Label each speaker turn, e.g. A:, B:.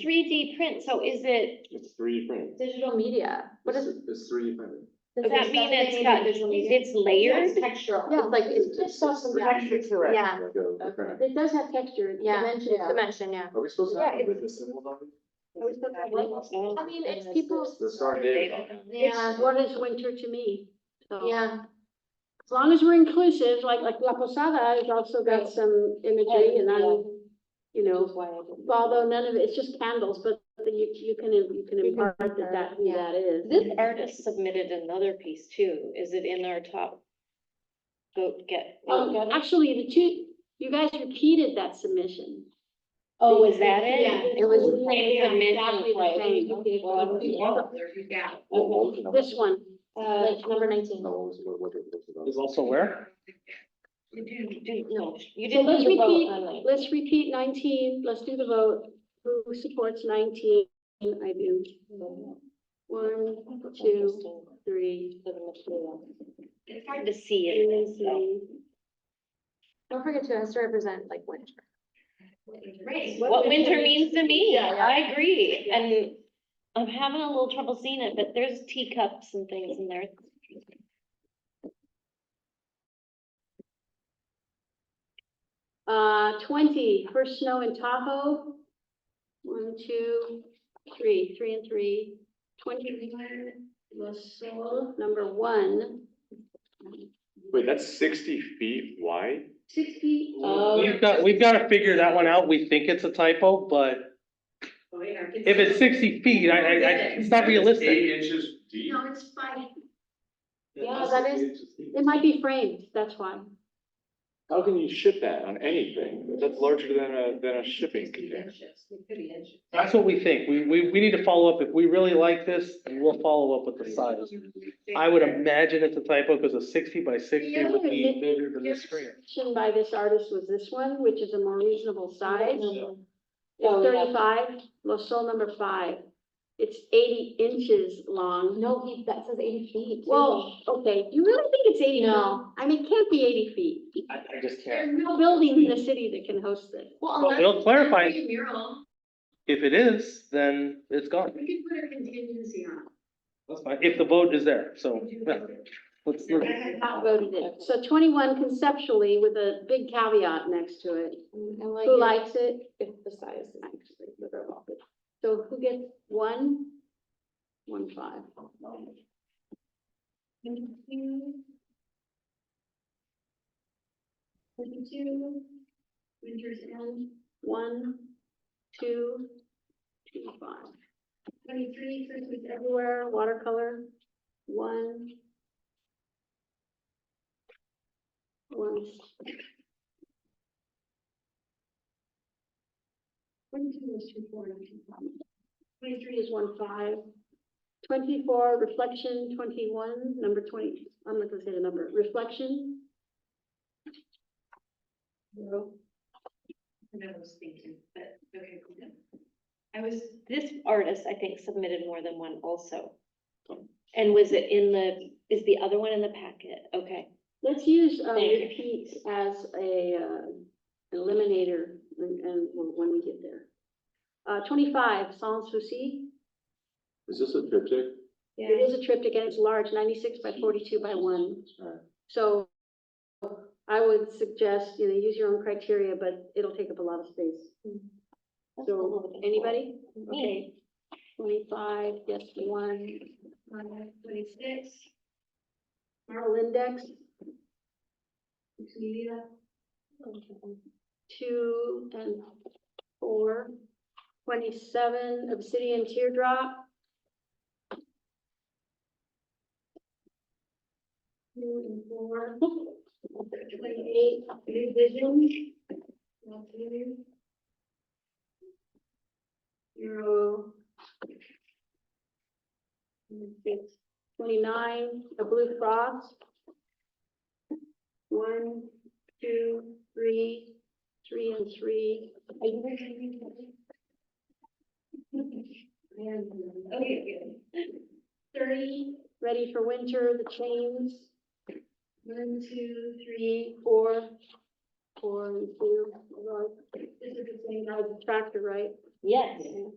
A: three D print, so is it
B: It's three D printed.
C: Digital media, what is,
B: It's three D printed.
A: does
C: Okay,
A: that
C: so
A: mean
C: they
A: it's
C: made
A: got,
C: it digital media.
A: it's layered?
D: Textural.
C: yeah, like, it's
B: It's-
C: just,
D: saw some
B: it's-
D: texture to it.
C: yeah,
B: Like a- a print.
C: it does have texture, it's
D: Yeah.
C: dimension, it's
D: Yeah.
C: dimension, yeah.
B: Are we supposed to
D: Yeah,
B: have a business symbol on it?
C: I
A: Oh,
C: mean, it's
D: it's
C: people's,
B: The star David.
C: yeah,
E: What is winter to me? So,
C: yeah,
E: As long as we're inclusive, like, like La Posada has also
D: Right.
E: got some imagery and I'm, you know, although none of it, it's just candles, but the- you, you can, you can impart that that, who
C: yeah.
E: that is.
A: This artist submitted another piece too. Is it in our top? Go get.
E: Oh, actually, the two, you guys repeated that submission.
A: Oh, is that it?
C: yeah, it was,
A: Same submission.
E: Exactly the same. This one,
C: uh, like, number nineteen.
B: No, what was it- what- what it- what it was
F: Is
B: about?
F: also where?
A: No, you
E: so
A: didn't.
E: let's
A: do the vote
E: repeat,
A: on that.
E: let's repeat nineteen, let's do the vote. Who supports nineteen? I do. One, two, three,
A: It's hard to see
E: and
A: it. so.
E: three.
C: Don't forget to, it has to represent like winter.
A: What winter means to me,
C: Yeah, yeah.
A: I agree, and I'm having a little trouble seeing it, but there's teacups and things in there.
E: Uh, twenty, first snow in Tahoe. One, two, three, three and three. Twenty-one, La Sol, number one.
G: Wait, that's sixty feet wide?
E: Sixty.
A: Oh,
C: Oh,
F: We've got, we've got to figure that one out. We think it's a typo, but if it's sixty feet, I, I, I- it's not realistic.
G: Eight inches deep?
E: No, it's five.
C: Yeah, that is-
E: It might be framed, that's why.
G: How can you ship that on anything? That's larger than a, than a shipping container.
F: That's what we think. We, we, we need to follow up. If we really like this, we'll follow up with the size. I would imagine it's a typo because a sixty by sixty would be bigger than the screen.
E: Submission by this artist was this one, which is a more reasonable size.
D: Oh,
E: It's
D: yeah.
E: thirty-five, La Sol number five. It's eighty inches long.
C: No, he, that says eighty feet. too.
E: Well, okay, you really think it's eighty?
C: No.
E: I mean, it can't be eighty feet.
F: I, I just can't.
E: There's no building in the city that can host this.
C: Well,
F: Well,
C: unless
F: it'll clarify.
C: it's a Mural,
F: If it is, then it's gone.
C: we could put a contingency on. it.
F: That's fine. If the vote is there, so. yeah. Let's, let's-
E: Not voted in. So twenty-one conceptually with a big caveat next to it.
C: I
E: Who
C: Mm, like
E: likes it?
C: if the size is actually literal.
E: So who gets one? One five.
C: Twenty-two, Winter's End,
E: One, two, two five.
C: twenty-three, Christmas
E: Everywhere, watercolor, one. One
C: Twenty-two is two four nine two five.
E: Twenty-three is one five. Twenty-four, reflection, twenty-one, number twenty, I'm not gonna say the number, reflection.
C: Zero. And I was thinking, but, okay, cool.
A: I was, this artist, I think, submitted more than one also. And was it in the, is the other one in the packet? Okay.
E: Let's use, uh,
A: Thank you.
E: repeat as a, uh, eliminator and, and when we get there. Uh, twenty-five, sans souci.
B: Is this a triptych?
E: It is a triptych and it's large, ninety-six by forty-two by one.
B: Alright.
E: So I would suggest, you know, use your own criteria, but it'll take up a lot of space. So, anybody? Okay.
A: Me.
E: Twenty-five, yes, one,
C: Twenty-six,
E: Merrill index,
C: Tulia.
E: two and four. Twenty-seven, obsidian teardrop. Two and four. Twenty-eight, new vision. Zero. Twenty-nine, a blue frost. One, two, three, three and three.
C: Okay,
E: Thirty, ready for winter, the chains. One, two, three, four, four and two. Although I- This is the same as the tractor, right?
A: Yes.